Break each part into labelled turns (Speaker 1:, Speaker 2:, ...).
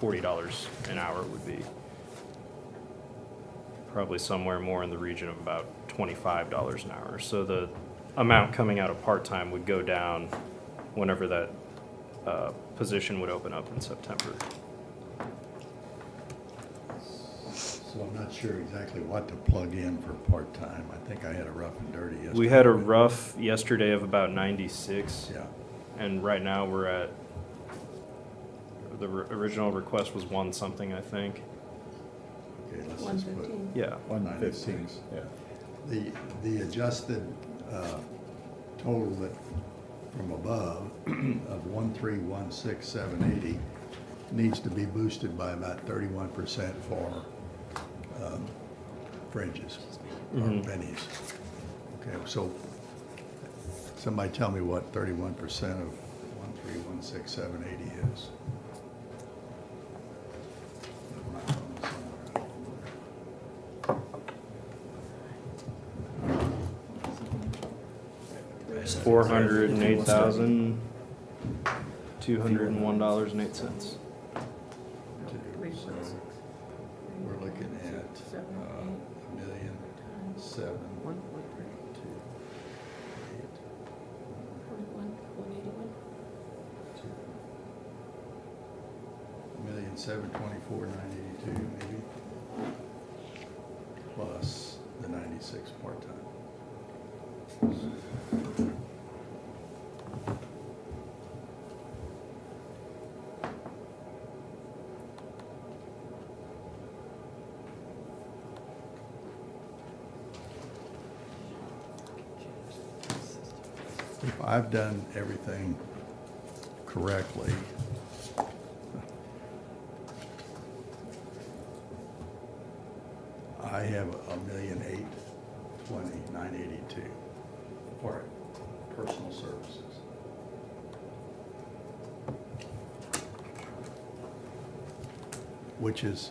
Speaker 1: forty dollars an hour would be probably somewhere more in the region of about twenty-five dollars an hour. So the amount coming out of part-time would go down whenever that, uh, position would open up in September.
Speaker 2: So I'm not sure exactly what to plug in for part-time. I think I had a rough and dirty yesterday.
Speaker 1: We had a rough yesterday of about ninety-six.
Speaker 2: Yeah,
Speaker 1: And right now, we're at, the r- original request was one something, I think.
Speaker 2: okay, let's
Speaker 3: One
Speaker 2: just put
Speaker 3: fifteen.
Speaker 1: Yeah.
Speaker 4: One fifteen,
Speaker 2: 96.
Speaker 4: yeah.
Speaker 2: the, the adjusted uh, total that, from above of one three one six seven eighty needs to be boosted by about thirty-one percent for um, fringes or
Speaker 1: Mhm.
Speaker 2: pennies. Okay, so somebody tell me what thirty-one percent of one three one six seven eighty is.
Speaker 1: Four hundred and eight thousand, two hundred and one dollars and eight cents.
Speaker 3: Three
Speaker 2: So
Speaker 3: point six.
Speaker 2: We're looking at uh,
Speaker 3: Seven,
Speaker 2: a million,
Speaker 3: eight,
Speaker 2: seven,
Speaker 3: one point three,
Speaker 2: two, eight,
Speaker 3: forty-one, one eighty-one.
Speaker 2: two. A Million, seven, twenty-four, nine eighty-two, maybe. Plus the ninety-six part-time. If I've done everything correctly. I have a million eight twenty nine eighty-two for personal services. Which is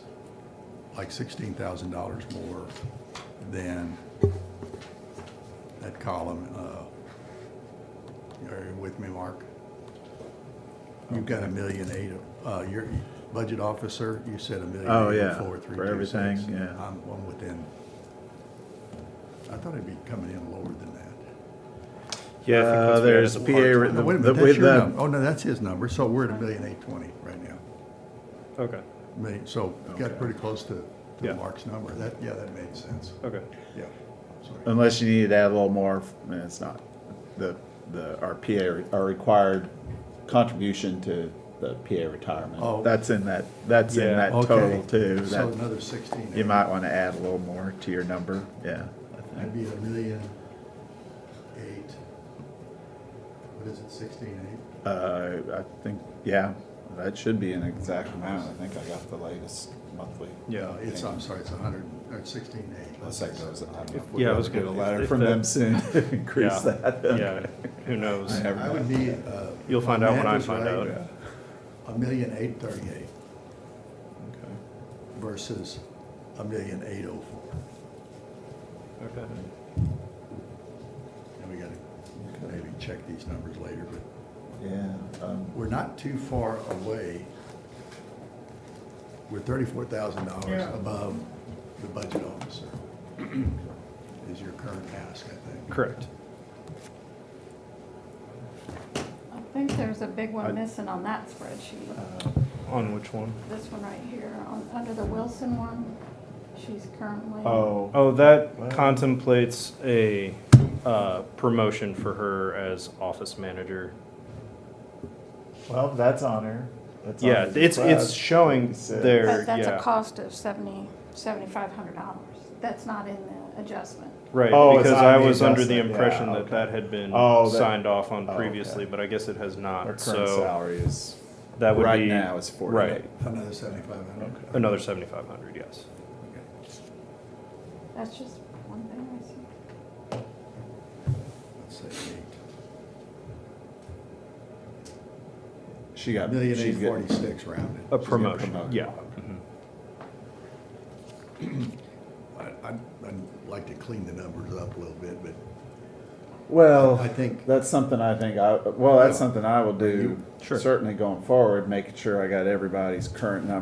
Speaker 2: like sixteen thousand dollars more than that column, uh, are you with me, Mark? You've got a million eight, uh, your budget officer, you said a million.
Speaker 4: Oh,
Speaker 2: eight
Speaker 4: yeah,
Speaker 2: four three
Speaker 4: for
Speaker 2: two
Speaker 4: everything,
Speaker 2: six.
Speaker 4: yeah.
Speaker 2: I'm, I'm within, I thought it'd be coming in lower than that.
Speaker 1: Yeah, I think that's what
Speaker 4: Uh,
Speaker 1: we had as
Speaker 4: there's
Speaker 1: a
Speaker 4: PA
Speaker 1: part-time.
Speaker 4: written-
Speaker 2: No, wait a
Speaker 4: The-
Speaker 2: minute,
Speaker 4: the-
Speaker 2: that's your
Speaker 4: the-
Speaker 2: number. Oh, no, that's his number, so we're at a million eight twenty right now.
Speaker 1: Okay,
Speaker 2: Million, so we got
Speaker 4: Okay.
Speaker 2: pretty close to,
Speaker 1: Yeah.
Speaker 2: to Mark's number. That, yeah, that made sense.
Speaker 1: okay.
Speaker 2: Yeah. Sorry.
Speaker 4: Unless you needed to add a little more, and it's not, the, the, our PA, our required contribution to the PA
Speaker 2: Oh.
Speaker 4: retirement. That's in that, that's in
Speaker 1: Yeah.
Speaker 4: that
Speaker 2: Okay.
Speaker 4: total too.
Speaker 2: So
Speaker 4: That-
Speaker 2: another sixteen.
Speaker 4: You might want to add a little more to your number, yeah. I think.
Speaker 2: That'd be a million eight. What is it, sixteen eight?
Speaker 4: Uh, I think, yeah, that should be an exact amount. I think I got the latest monthly.
Speaker 1: Yeah.
Speaker 2: Uh, It's, I'm sorry, it's a hundred, or sixteen eight.
Speaker 4: Unless that goes, I don't know. if
Speaker 1: Yeah,
Speaker 4: we'll
Speaker 1: I was
Speaker 4: ever Get a
Speaker 1: gonna-
Speaker 4: letter
Speaker 1: if
Speaker 4: from
Speaker 1: that-
Speaker 4: them soon, to increase
Speaker 1: Yeah.
Speaker 4: that.
Speaker 1: Yeah, who knows?
Speaker 4: I-
Speaker 2: I would be, uh.
Speaker 1: You'll find out when I
Speaker 2: math is
Speaker 1: find
Speaker 2: right,
Speaker 1: out.
Speaker 4: Yeah.
Speaker 2: A million eight thirty-eight
Speaker 4: Okay.
Speaker 2: versus a million eight oh four.
Speaker 1: Okay.
Speaker 2: And we gotta maybe check these numbers later, but
Speaker 4: Yeah, um,
Speaker 2: we're not too far away. We're thirty-four thousand dollars above the budget officer, is your current ask, I think.
Speaker 1: Correct.
Speaker 5: I think there's a big
Speaker 4: I-
Speaker 5: one missing on that spreadsheet.
Speaker 4: uh,
Speaker 1: On which one?
Speaker 5: This one right here, on, under the Wilson one, she's currently.
Speaker 4: oh,
Speaker 1: Oh, that
Speaker 4: Wow.
Speaker 1: contemplates a uh, promotion for her as office manager.
Speaker 4: well, that's on her. That's on
Speaker 1: Yeah,
Speaker 4: her
Speaker 1: it's it's
Speaker 4: request.
Speaker 1: showing
Speaker 4: Six.
Speaker 1: there.
Speaker 5: But that's a
Speaker 1: Yeah,
Speaker 5: cost of seventy, seventy-five hundred dollars. That's not in the adjustment.
Speaker 1: right.
Speaker 4: Oh, it's
Speaker 1: because
Speaker 4: on
Speaker 1: I
Speaker 4: the
Speaker 1: was under the
Speaker 4: adjustment, yeah,
Speaker 1: impression that
Speaker 4: okay.
Speaker 1: that had been
Speaker 4: Oh, that-
Speaker 1: signed off on
Speaker 4: oh, okay.
Speaker 1: previously, but I guess it has not.
Speaker 4: Her current
Speaker 1: so
Speaker 4: salary is,
Speaker 1: that would
Speaker 4: right
Speaker 1: be
Speaker 4: now is forty-eight.
Speaker 1: Right,
Speaker 2: Another seventy-five hundred.
Speaker 4: Okay.
Speaker 1: another seventy-five hundred. Yes.
Speaker 5: That's just one thing I see.
Speaker 2: Let's say eight.
Speaker 4: She got.
Speaker 2: Million
Speaker 4: she's
Speaker 2: eight
Speaker 4: getting-
Speaker 2: forty-six rounded.
Speaker 1: A
Speaker 2: She's getting
Speaker 1: promotion.
Speaker 4: promoted.
Speaker 1: Yeah.
Speaker 4: Okay.
Speaker 1: Mhm.
Speaker 2: I- I'd, I'd like to clean the numbers up a little bit, but
Speaker 4: Well,
Speaker 2: I think-
Speaker 4: that's something I think I, well, that's something I will do.
Speaker 1: Sure.
Speaker 4: Certainly going forward, making sure I got everybody's current number